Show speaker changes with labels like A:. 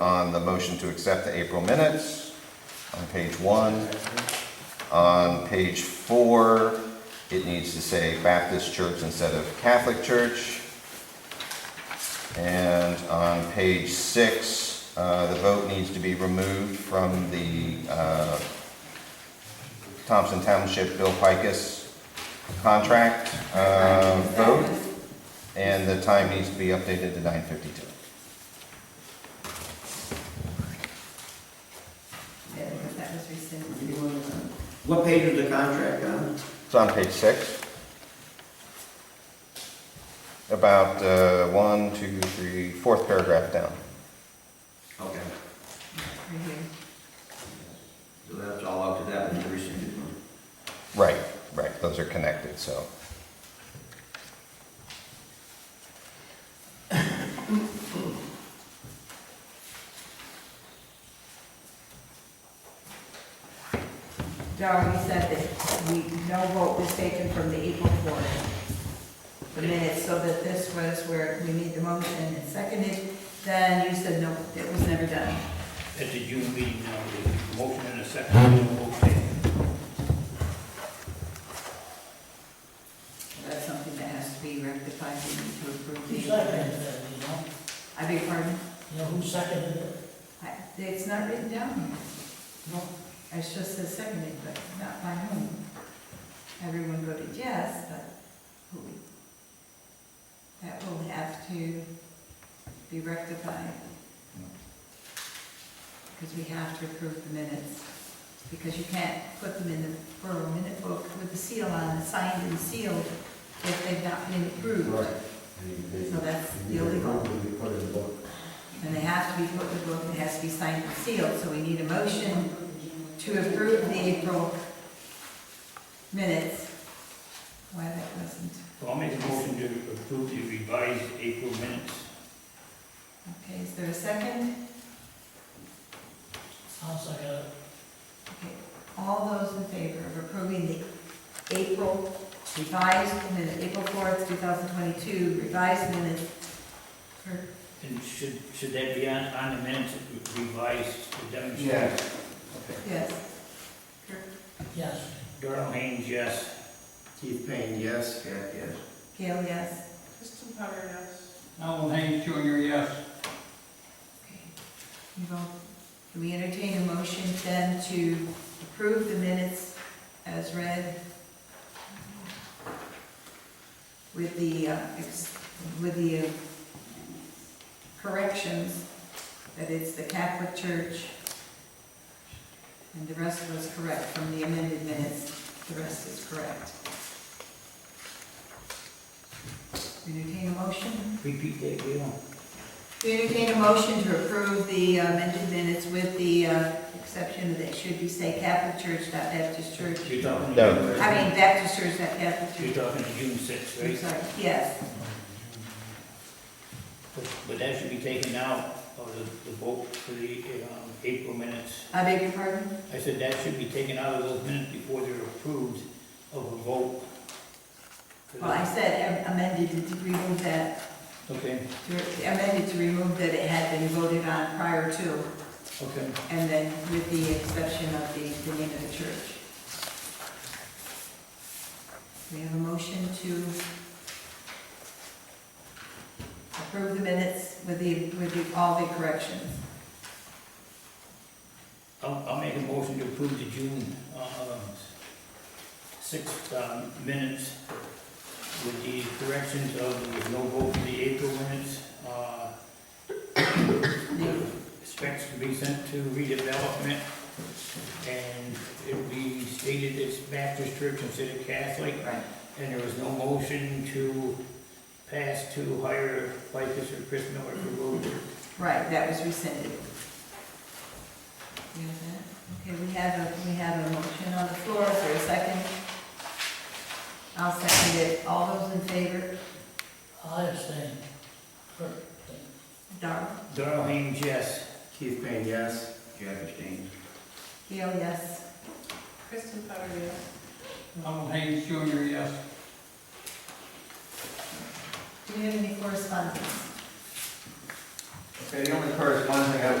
A: on the motion to accept the April minutes on page one. On page four, it needs to say Baptist Church instead of Catholic Church. And on page six, uh, the vote needs to be removed from the uh, Thompson Township Bill Pikus contract uh, vote, and the time needs to be updated to 9:52.
B: Yeah, because that was rescinded.
C: uh, What page is the contract on?
A: It's on page six. About uh, one, two, three, fourth paragraph down.
C: Okay,
B: Right here.
C: so that's all up to that, and the rescinded one.
A: Right, right, those are connected, so.
B: Darrell, you said that we, no vote was taken from the April fourth. The minutes, so that this was where we made the motion and seconded, then you said no, it was never done.
D: At the June meeting, now, the motion and a second, no vote taken.
B: That's something that has to be rectified, we need to approve
E: Who
B: the.
E: seconded it, you know?
B: I beg your pardon?
E: You know, who seconded it?
B: I- It's not written down here.
E: No.
B: It's just says seconded, but not by whom. Everyone voted yes, but who? That will have to be rectified. Because we have to approve the minutes. Because you can't put them in the borough minute book with a seal on, it, signed and sealed, if they've not been approved. So that's illegal. And they have to be put in the book, it has to be signed and sealed, so we need a motion to approve the April minutes. Why that wasn't,
D: So I'll make a motion to approve the revised April minutes.
B: okay, is there a second?
E: I'll second it.
B: Okay, all those in favor of approving the April revised minutes, April fourth, two thousand twenty-two revised minutes for
D: And should, should that be on, on the minutes revised to demonstrate?
B: Yes. Kirk,
E: Yes.
D: Darrell Haynes, yes.
C: Keith Payne, yes. Yeah, yes.
B: Gail, yes.
F: Kristen Power, yes.
G: Alan Haynes Jr., yes.
B: Okay. You vote. Do we entertain a motion then to approve the minutes as read? With the, uh, ex- with the uh, corrections that it's the Catholic Church. And the rest was correct from the amended minutes, the rest is correct. Entertain a motion?
D: Repeat that, Gail.
B: We entertain a motion to approve the uh, amended minutes with the uh, exception that it should be say Catholic Church, not Baptist Church.
D: You're talking.
A: No.
B: I
D: June-
B: mean Baptist Church, not
D: You're
B: Catholic Church.
D: talking June sixth,
B: I'm
D: right?
B: sorry, yes.
D: But that should be taken out of the, the vote for the, um, April minutes.
B: I beg your pardon?
D: I said that should be taken out of those minutes before they're approved of a vote.
B: Well, I said amended to remove that,
D: Okay,
B: to- amended to remove that it had been voted on prior to,
D: okay.
B: and then with the exception of the, the name of the church. We have a motion to approve the minutes with the, with the, all the corrections.
D: I'll, I'll make a motion to approve the June, um, sixth, um, minutes with the corrections of, there was no vote for the April minutes, uh, specs to be sent to redevelopment, and it'll be stated it's Baptist Church instead of Catholic,
B: Right.
D: and there was no motion to pass to hire Lycus or Chris Miller for road work.
B: Right, that was rescinded. You have that? Okay, we have a, we have a motion on the floor, is there a second? I'll second it, all those in favor?
E: I abstain. Kirk,
B: Darrell?
D: Darrell Haynes, yes.
C: Keith Payne, yes. Jack Epstein.
B: Gail, yes.
F: Kristen Power, yes.
G: Alan Haynes Jr., yes.
B: Do we have any correspondence?
H: Okay, the only correspondence I have